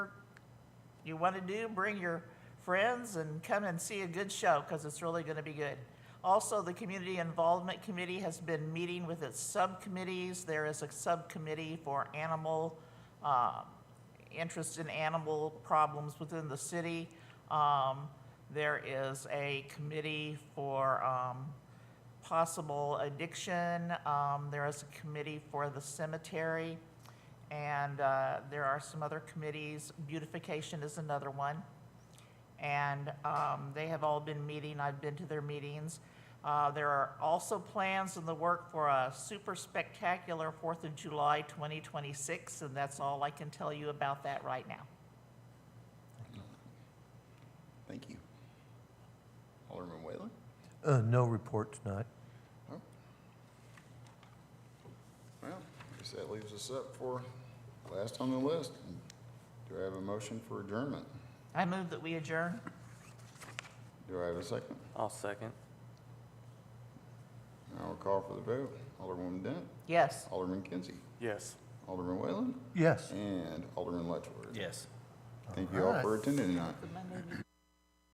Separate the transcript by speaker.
Speaker 1: you want to do, bring your friends and come and see a good show because it's really going to be good. Also, the Community Involvement Committee has been meeting with its subcommittees. There is a subcommittee for animal, uh, interest in animal problems within the city. Um, There is a committee for um, possible addiction. Um, There is a committee for the cemetery. And uh, there are some other committees. Beautification is another one. And um, they have all been meeting. I've been to their meetings. Uh, There are also plans in the work for a super spectacular Fourth of July 2026, and that's all I can tell you about that right now.
Speaker 2: Thank you. Alderman Whalen?
Speaker 3: Uh, no report tonight.
Speaker 2: Well, I guess that leaves us up for last on the list. Do I have a motion for adjournment?
Speaker 1: I move that we adjourn.
Speaker 2: Do I have a second?
Speaker 4: I'll second.
Speaker 2: I will call for the vote. Alderman Dent,
Speaker 1: Yes.
Speaker 2: Alderman Kinsey,
Speaker 4: Yes.
Speaker 2: Alderman Whalen,
Speaker 3: Yes.
Speaker 2: and Alderman Letchworth.
Speaker 5: Yes.
Speaker 2: Thank you all for
Speaker 3: Alright.
Speaker 2: attending tonight.
Speaker 1: Monday,